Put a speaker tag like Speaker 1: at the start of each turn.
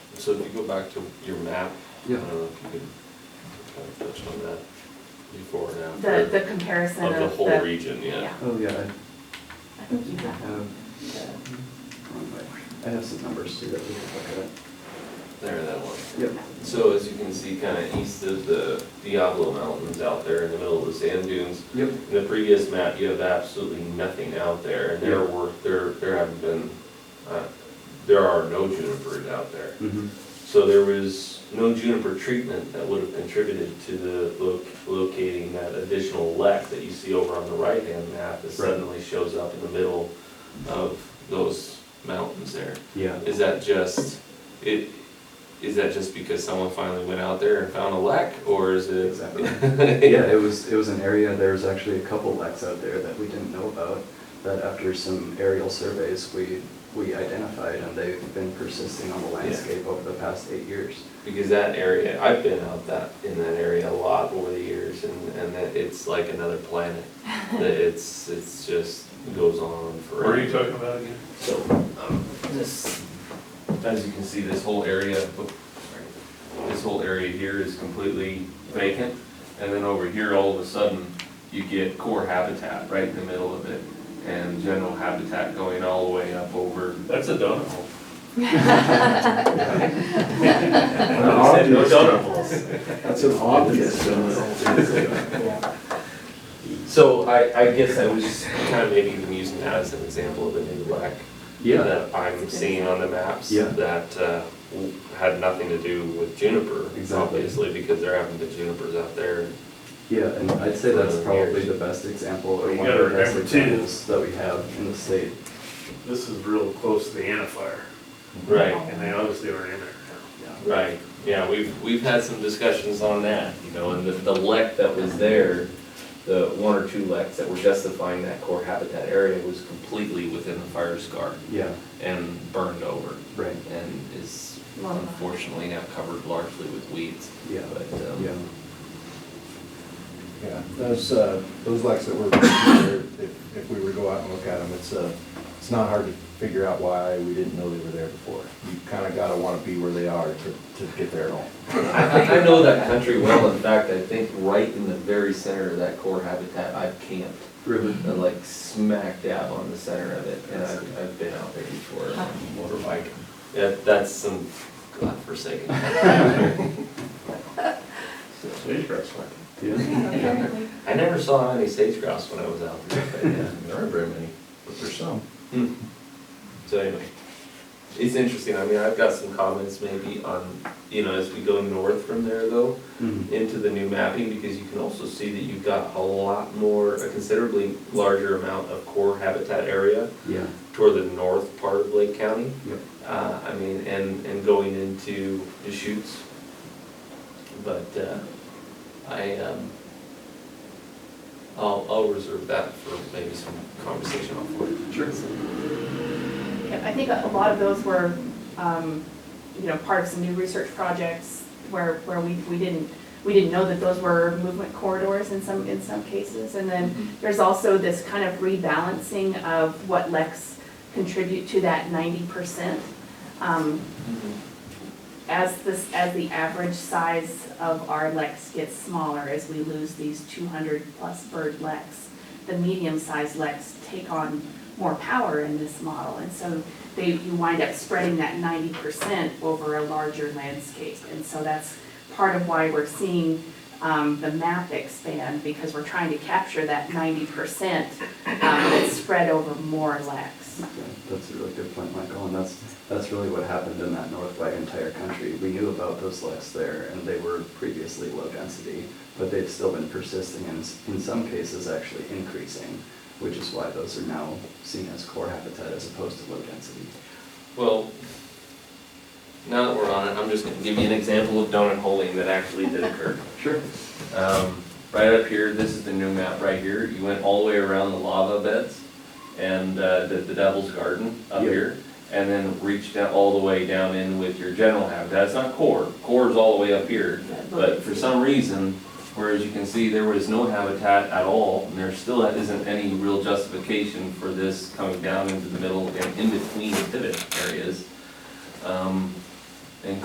Speaker 1: so if you go back to your map, I
Speaker 2: Yeah.
Speaker 1: don't know if you could kind of touch on that before and
Speaker 3: The, the
Speaker 1: after.
Speaker 3: comparison
Speaker 1: Of
Speaker 3: of the.
Speaker 1: the whole region, yeah.
Speaker 2: Oh, yeah, I-
Speaker 3: I think you have.
Speaker 2: Um,
Speaker 3: the-
Speaker 2: wrong way. I have some numbers too that we can look
Speaker 1: There, that one.
Speaker 2: at. Yep,
Speaker 1: So as you can see, kind of east of the Diablo Mountains out there in the middle of the sand dunes,
Speaker 2: yep,
Speaker 1: in the previous map, you have absolutely nothing out there, and there
Speaker 2: Yeah.
Speaker 1: were, there, there haven't been, uh, there are no junipers out there.
Speaker 2: mhm,
Speaker 1: So there was no juniper treatment that would have contributed to the lo- locating that additional lek that you see over on the right-hand map that
Speaker 2: Right.
Speaker 1: suddenly shows up in the middle of those mountains there.
Speaker 2: yeah.
Speaker 1: Is that just, it, is that just because someone finally went out there and found a lek, or is it?
Speaker 2: Exactly. Yeah, it was, it was an area, there was actually a couple lacks out there that we didn't know about, that after some aerial surveys, we, we identified, and they've been persisting on the landscape over the past eight years.
Speaker 1: Because that area, I've been out that, in that area a lot over the years, and, and that it's like another planet. That it's, it's just goes on forever.
Speaker 4: Where are you talking about again?
Speaker 1: So, um, this, as you can see, this whole area, oop, sorry. this whole area here is completely vacant. And then over here, all of a sudden, you get core habitat right in the middle of it. And general habitat going all the way up over.
Speaker 4: That's a donut hole.
Speaker 1: I said no donut holes.
Speaker 2: That's an obvious
Speaker 1: So I, I guess I was just kind of maybe even using that as an example of a new lack
Speaker 2: Yeah,
Speaker 1: that I'm seeing on the maps
Speaker 2: Yeah.
Speaker 1: that uh, w- had nothing to do with juniper,
Speaker 2: Exactly.
Speaker 1: obviously, because there haven't been junipers out there.
Speaker 2: yeah, and I'd say that's probably the best example, or
Speaker 4: You
Speaker 2: one of the
Speaker 4: gotta
Speaker 2: best
Speaker 4: remember too-
Speaker 2: examples that we have in the state.
Speaker 4: This is real close to the antifier,
Speaker 1: Right,
Speaker 4: and they obviously aren't in there
Speaker 1: right. Yeah, we've, we've had some discussions on that, you know, and the, the lek that was there, the one or two leks that were justifying that core habitat area was completely within the fire scar
Speaker 2: Yeah,
Speaker 1: and burned over.
Speaker 2: right,
Speaker 1: and is
Speaker 3: Well-
Speaker 1: unfortunately now covered largely with weeds.
Speaker 2: Yeah.
Speaker 1: But, um,
Speaker 2: yeah.
Speaker 5: Yeah, those, uh, those lights that were, if, if we were to go out and look at them, it's, uh, it's not hard to figure out why we didn't know they were there before. You kinda gotta wanna be where they are to, to get there at all.
Speaker 1: I, I know that country well. In fact, I think right in the very center of that core habitat, I've camped,
Speaker 2: Really?
Speaker 1: uh, like smack dab on the center of it, and I've, I've been out there before. Motorbike. Yeah, that's some godforsaken.
Speaker 4: Sage grass plant.
Speaker 2: Yeah,
Speaker 3: Apparently.
Speaker 1: I never saw any sage grouse when I was out there, but yeah.
Speaker 5: There aren't very many, but there's some.
Speaker 1: Hmm. So anyway, it's interesting, I mean, I've got some comments maybe on, you know, as we go north from there though,
Speaker 2: Mhm.
Speaker 1: into the new mapping, because you can also see that you've got a lot more, a considerably larger amount of core habitat area
Speaker 2: yeah,
Speaker 1: toward the north part of Lake County.
Speaker 2: yep,
Speaker 1: Uh, I mean, and, and going into Deschutes. But, uh, I, um, I'll, I'll reserve that for maybe some conversation offline.
Speaker 2: Sure.
Speaker 3: Yeah, I think a lot of those were, um, you know, part of some new research projects where, where we, we didn't, we didn't know that those were movement corridors in some, in some cases. And then there's also this kind of rebalancing of what LECs contribute to that ninety percent. um, As this, as the average size of our leks gets smaller, as we lose these two hundred plus bird leks, the medium-sized leks take on more power in this model, and so they, you wind up spreading that ninety percent over a larger landscape. And so that's part of why we're seeing, um, the map expand, because we're trying to capture that ninety percent, um, that's spread over more leks.
Speaker 2: yeah, that's a really good point, Michael, and that's, that's really what happened in that North White entire country. We knew about those lakes there, and they were previously low density, but they've still been persisting and s- in some cases actually increasing, which is why those are now seen as core habitat as opposed to low density.
Speaker 1: Well, now that we're on it, I'm just gonna give you an example of donut holing that actually did occur.
Speaker 2: Sure.
Speaker 1: Um, right up here, this is the new map right here, you went all the way around the lava beds and, uh, the, the Devil's Garden up
Speaker 2: Yeah.
Speaker 1: here, and then reached down, all the way down in with your general habitat, it's not core, core's all the way up here, but for some reason, whereas you can see, there was no habitat at all, and there still isn't any real justification for this coming down into the middle and in between the pivot areas. Um,